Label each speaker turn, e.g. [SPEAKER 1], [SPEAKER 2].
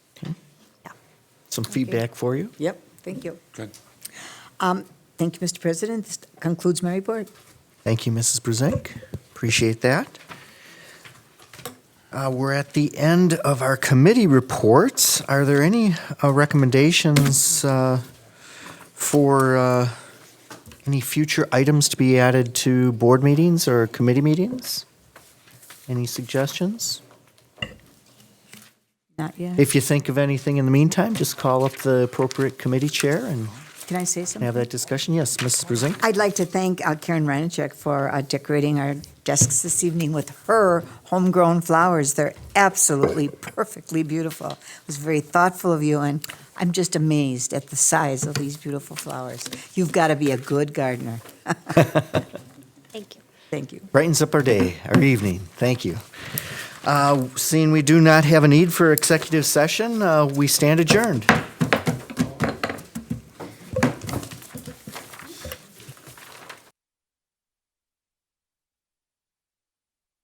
[SPEAKER 1] some feedback for you.
[SPEAKER 2] Yep, thank you.
[SPEAKER 3] Good.
[SPEAKER 2] Um, Thank you, Mr. President. This concludes my report.
[SPEAKER 1] Thank you, Mrs. Brusink. Appreciate that. Uh, We're at the end of our committee reports. Are there any uh, recommendations uh, for uh, any future items to be added to board meetings or committee meetings? Any suggestions?
[SPEAKER 2] Not yet.
[SPEAKER 1] If you think of anything in the meantime, just call up the appropriate committee chair and
[SPEAKER 2] Can I say
[SPEAKER 1] have
[SPEAKER 2] something?
[SPEAKER 1] that discussion. Yes, Mrs. Brusink?
[SPEAKER 2] I'd like to thank uh, Karen Reinacek for uh, decorating our desks this evening with her homegrown flowers. They're absolutely perfectly beautiful. It was very thoughtful of you, and I'm just amazed at the size of these beautiful flowers. You've got to be a good gardener.
[SPEAKER 4] Thank you.
[SPEAKER 2] Thank you.
[SPEAKER 1] brightens up our day, our evening. Thank you. Uh, Seeing we do not have a need for executive session, uh, we stand adjourned.